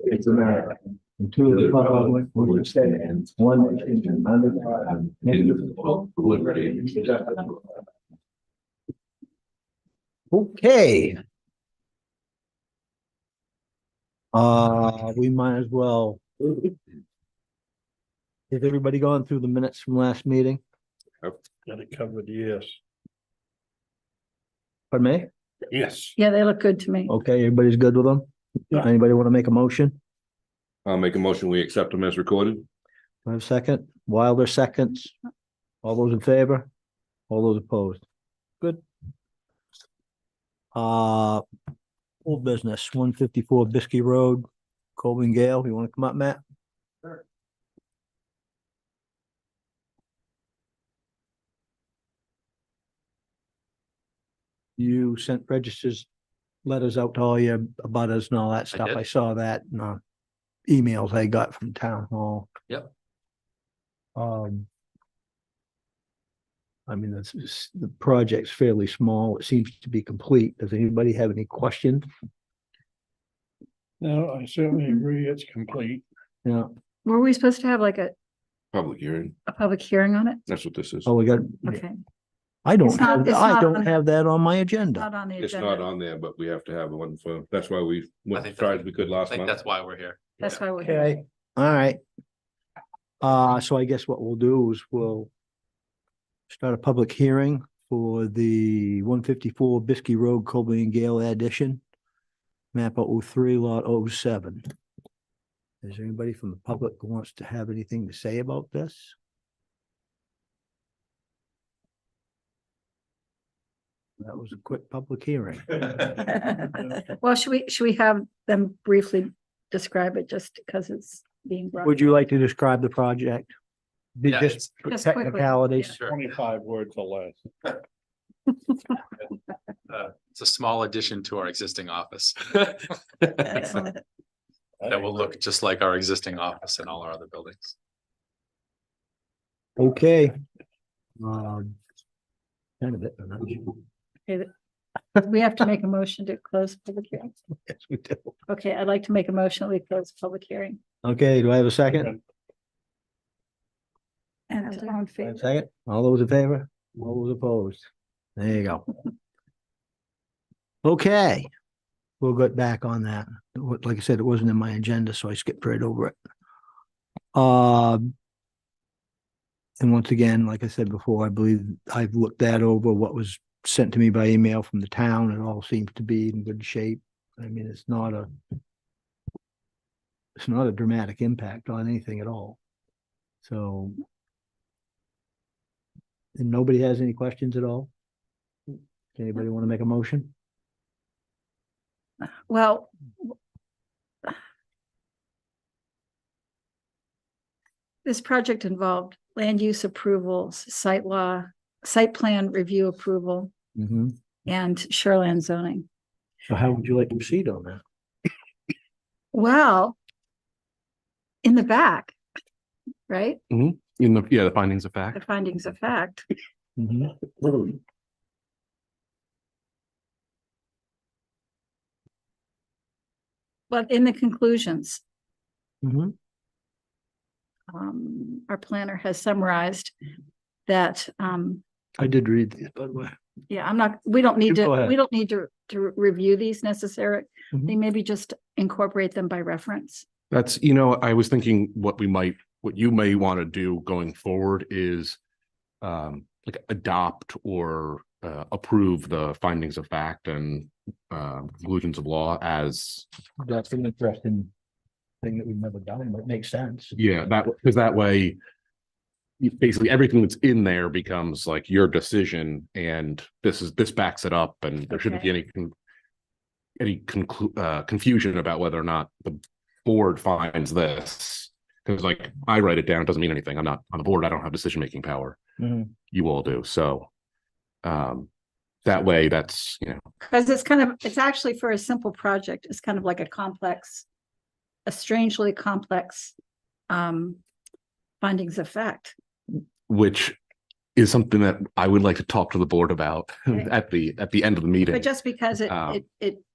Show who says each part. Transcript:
Speaker 1: It's America. And two of the public, which stands, one nation, under God, indivisible, with liberty. and justice for all.
Speaker 2: Okay. Uh, we might as well. Has everybody gone through the minutes from last meeting?
Speaker 3: Got it covered, yes.
Speaker 2: Pardon me?
Speaker 3: Yes.
Speaker 4: Yeah, they look good to me.
Speaker 2: Okay, everybody's good with them?
Speaker 3: Yeah.
Speaker 2: Anybody want to make a motion?
Speaker 5: I'll make a motion, we accept them as recorded.
Speaker 2: Do I have a second? Wilder seconds. All those in favor? All those opposed? Good. Uh, old business, one fifty-four Biskie Road, Colvin Gale. You want to come up, Matt? You sent registers, letters out to all your abutters and all that stuff.
Speaker 6: did.
Speaker 2: I saw that in uh emails I got from town hall.
Speaker 6: Yep.
Speaker 2: Um. I mean, this is, the project's fairly small. It seems to be complete. Does anybody have any questions?
Speaker 3: No, I certainly agree, it's complete.
Speaker 2: Yeah,
Speaker 4: Were we supposed to have like a,
Speaker 5: Public hearing.
Speaker 4: a public hearing on it?
Speaker 5: That's what this is.
Speaker 2: oh, we got,
Speaker 4: Okay,
Speaker 2: I
Speaker 4: It's
Speaker 2: don't,
Speaker 4: not-
Speaker 2: have-
Speaker 4: it's
Speaker 2: I
Speaker 4: not
Speaker 2: don't
Speaker 4: on-
Speaker 2: have that on my agenda.
Speaker 4: not on the
Speaker 5: It's not
Speaker 4: agenda.
Speaker 5: on there, but we have to have one for, that's why we
Speaker 6: I
Speaker 5: went as
Speaker 6: think
Speaker 5: far
Speaker 6: that's-
Speaker 5: as we could
Speaker 6: I
Speaker 5: last
Speaker 6: think
Speaker 5: month.
Speaker 6: that's why we're here.
Speaker 4: That's why we're here.
Speaker 2: Okay, all right. Uh, so I guess what we'll do is we'll start a public hearing for the one fifty-four Biskie Road, Colby and Gale addition. Map 03 lot 07. Is there anybody from the public who wants to have anything to say about this? That was a quick public hearing.
Speaker 4: Well, should we, should we have them briefly describe it just because it's being brought?
Speaker 2: Would you like to describe the project? Did
Speaker 6: Yeah,
Speaker 2: Just
Speaker 6: it's-
Speaker 4: Just quickly,
Speaker 2: technicalities?
Speaker 6: Sure.
Speaker 3: Twenty-five words or less.
Speaker 6: It's a small addition to our existing office. That
Speaker 4: Excellent.
Speaker 6: will look just like our existing office and all our other buildings.
Speaker 2: Okay. Um, Kind of it. but not-
Speaker 4: We have to make a motion to close public hearing.
Speaker 2: Yes, we do.
Speaker 4: Okay, I'd like to make a motion, that we close public hearing.
Speaker 2: Okay, do I have a second?
Speaker 4: And all in favor?
Speaker 2: Second, all those in favor, all those opposed? There you go. Okay, we'll get back on that. Wa- Like I said, it wasn't in my agenda, so I skipped right over it. Um. And once again, like I said before, I believe I've looked that over, what was sent to me by email from the town. It all seems to be in good shape. I mean, it's not a it's not a dramatic impact on anything at all. So and nobody has any questions at all? Anybody want to make a motion?
Speaker 4: Well. w- This project involved land use approvals, site law, site plan review approval,
Speaker 2: Mm-hmm.
Speaker 4: and shoreland zoning.
Speaker 2: So how would you like to proceed on that?
Speaker 4: Well, in the back, right?
Speaker 5: In the, yeah, the findings of
Speaker 4: The
Speaker 5: fact.
Speaker 4: findings of fact.
Speaker 2: Mm-hmm.
Speaker 4: But in the conclusions,
Speaker 2: Mhm.
Speaker 4: um, our planner has summarized that, um,
Speaker 2: I did read these, by the way.
Speaker 4: yeah, I'm not, we don't need
Speaker 2: You go
Speaker 4: to,
Speaker 2: ahead.
Speaker 4: we don't need to, to review these necessarily. They
Speaker 2: Mhm.
Speaker 4: maybe just incorporate them by reference.
Speaker 7: That's, you know, I was thinking what we might, what you may want to do going forward is um, like adopt or uh, approve the findings of fact and uh, conclusions of law as,
Speaker 2: That's an interesting thing that we've never done, but it makes sense.
Speaker 7: yeah, that, because that way you- basically everything that's in there becomes like your decision and this is, this backs it up and there shouldn't be any con- any conclu- uh, confusion about whether or not the board finds this. Because like I write it down, it doesn't mean anything. I'm not on the board. I don't have decision making power.
Speaker 2: Mhm.
Speaker 7: You all do. So um that way that's, you know,
Speaker 4: Because it's kind of, it's actually for a simple project, it's kind of like a complex, a strangely complex um findings of fact.
Speaker 7: which is something that I would like to talk to the board about
Speaker 4: Okay.
Speaker 7: at the at the end of the meeting.
Speaker 4: But just because it
Speaker 7: Um,
Speaker 4: it it